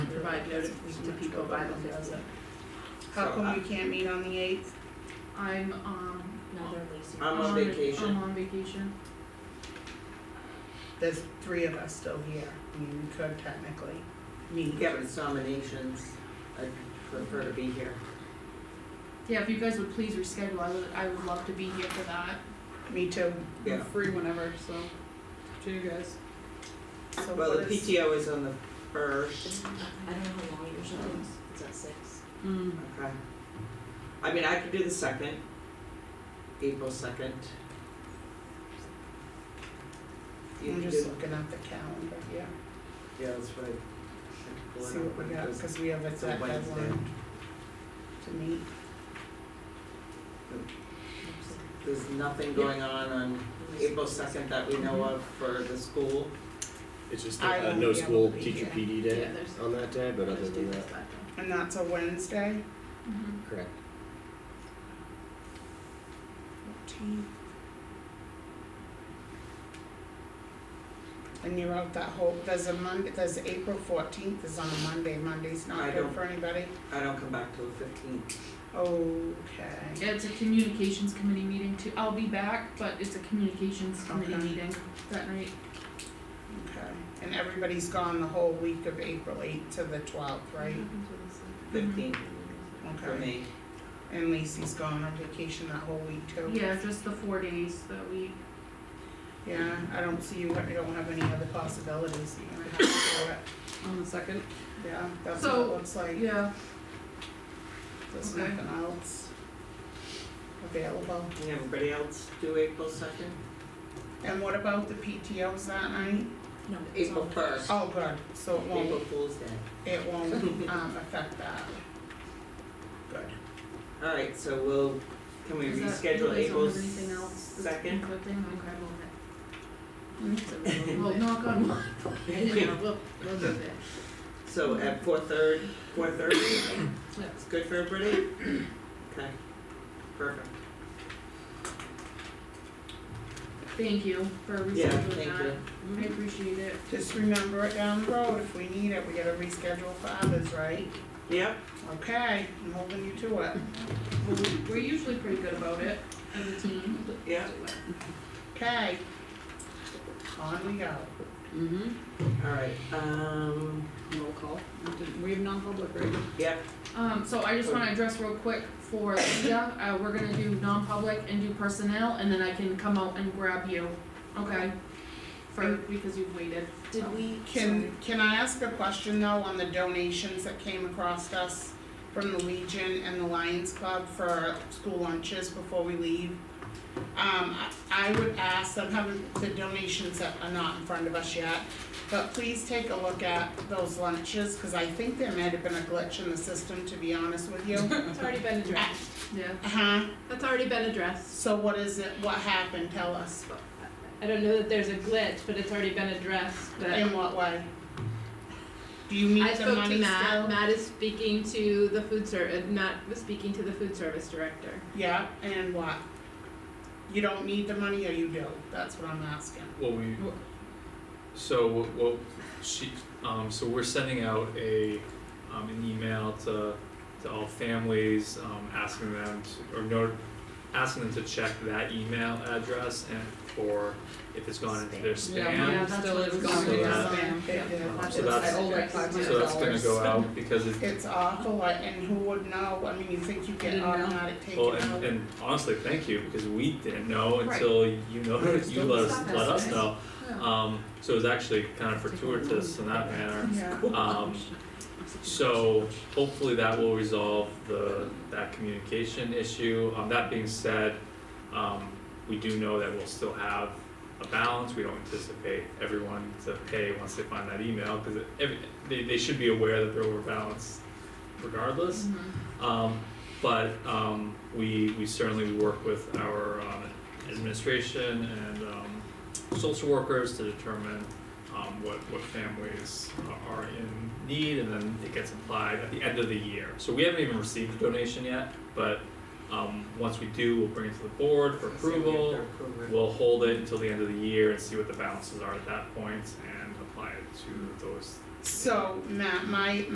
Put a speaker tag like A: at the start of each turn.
A: provide notice to people by the fifteenth.
B: How
C: So
A: uh,
B: come
C: I-
B: we can't meet on the eighth? Uh,
A: I'm, um,
D: Another lease.
C: I'm on
A: vac-
C: vacation.
A: I'm on vacation.
B: There's three of us still here, I mean, we could technically meet.
C: Yeah, but it's nominations, I'd prefer to be here.
A: Yeah, if you guys would please reschedule, I would, I would love to be here for that.
B: Me too,
C: Yeah,
E: free whenever, so, to you guys.
B: so
C: well,
B: what
C: the
B: is-
C: PTO is on the first,
D: I don't know how long yours is, it's at six.
E: Mm.
C: okay. I mean, I could do the second, April second. You
B: I'm
C: could
B: just
C: do,
B: looking at the calendar, yeah,
C: yeah, that's right.
B: see what we got, cause we have a
C: It's a
B: set
C: Wednesday.
B: deadline to meet.
C: There's nothing going on on April second that we know of for the school.
F: It's just
B: I
F: a
B: won't
F: no
B: be able
F: school
B: to be
F: teacher
B: here.
F: PD day
A: Yeah, there's-
F: on that day, but other
A: Let's do
F: than that,
A: this that day.
B: And that's a Wednesday?
A: Mhm.
F: correct.
B: Fourteenth. And you're out that whole, there's a Monday, there's April fourteenth is on a Monday, Monday's
C: I
B: not good
C: don't-
B: for anybody?
C: I don't come back till the fifteenth.
B: Okay,
A: Yeah, it's a communications committee meeting too, I'll be back, but it's a communications committee
B: Okay.
A: meeting that night.
B: okay, and everybody's gone the whole week of April eighth to the twelfth, right?
C: Fifteenth for
B: Mm-hmm. Okay,
C: me.
B: and Lacey's gone on vacation that whole week too?
A: Mm-hmm. Yeah, just the four days that we,
B: Yeah, I don't see you, I don't have any other possibilities, you're gonna have to do it,
E: On the second,
B: yeah, that's what it
A: So-
B: looks like,
A: yeah,
B: there's
A: okay.
B: nothing else available.
C: Can everybody else do April second?
B: And what about the PTOs that night?
D: No, it's
C: April
D: on the-
C: first,
B: Oh, good, so it
C: April
B: won't,
C: Fool's Day.
B: it won't, um, affect that. Good.
C: Alright, so we'll, can we
A: is that, you guys
C: reschedule
A: don't
C: April
A: have anything else that's
C: second?
A: conflicting? okay, we'll, we'll knock on wood, Yeah, we'll, we'll do that.
C: So at four third, four thirty,
A: Yeah.
C: it's good for everybody? Okay, perfect.
A: Thank you for
C: Yeah,
A: rescheduling
C: thank you.
A: that, I appreciate it.
B: Just remember it down the road, if we need it, we gotta reschedule for others, right?
C: Yep,
B: Okay, I'm holding you to it.
A: Well, we- We're usually pretty good about it as a team.
C: yep,
B: Okay. On we go.
E: mm-hmm,
C: alright, um,
E: roll call, we didn't, we have non-public, right?
C: yep,
A: Um, so I just wanna address real quick for Leah, uh, we're gonna do non-public and do personnel, and then I can come out and grab you, okay? For, because you've waited.
D: Did we,
B: Can, can I ask a question though on the donations that came across us from the Legion and the Lions Club for school lunches before we leave? Um, I, I would ask, I'm having the donations that are not in front of us yet, but please take a look at those lunches, cause I think there might have been a glitch in the system, to be honest with you.
G: It's already been addressed.
A: Yeah.
B: Uh-huh,
G: That's already been addressed.
B: so what is it, what happened, tell us,
G: I don't know that there's a glitch, but it's already been addressed, but
B: in what way? Do you
G: I
B: need the
G: spoke
B: money
G: to
B: still?
G: Matt, Matt is speaking to the food ser, uh, Matt was speaking to the food service director.
B: Yeah, and what? You don't need the money or you do? That's what I'm asking.
H: Well, we, so what, what she, um, so we're sending out a, um, an email to, to all families, um, asking them to, or no, asking them to check that email address and for if it's gone into their spam.
A: Yeah,
E: mine
A: that's
E: still
A: what
E: is
A: it was.
E: gone
H: So
E: into
H: that-
E: spam.
B: It did.
H: Um,
E: That's
H: So
E: it. I
H: that's,
E: owe like five hundred
H: so
E: dollars.
H: that's gonna go out because it,
B: It's awful, I- and who would know? I mean, you think you get
E: Didn't know.
B: automatic taken
H: well,
B: out?
H: and, and honestly, thank you, because we didn't know
A: Right.
H: until you know, you let us,
A: Stop us,
H: let us
A: right?
H: know.
A: Yeah.
H: Um, so it was actually kind of fortuitous in that manner.
B: Yeah,
H: Um, so hopefully that will resolve the, that communication issue. Um, that being said, um, we do know that we'll still have a balance. We don't anticipate everyone to pay once they find that email, cause it- every, they, they should be aware that they're overbalanced regardless.
A: Mhm.
H: Um, but, um, we, we certainly work with our, um, administration and, um, social workers to determine, um, what, what families are in need, and then it gets applied at the end of the year. So we haven't even received the donation yet, but, um, once we do, we'll bring it to the board for approval. We'll hold it until the end of the year and see what the balances are at that point and apply it to those
B: so Matt, my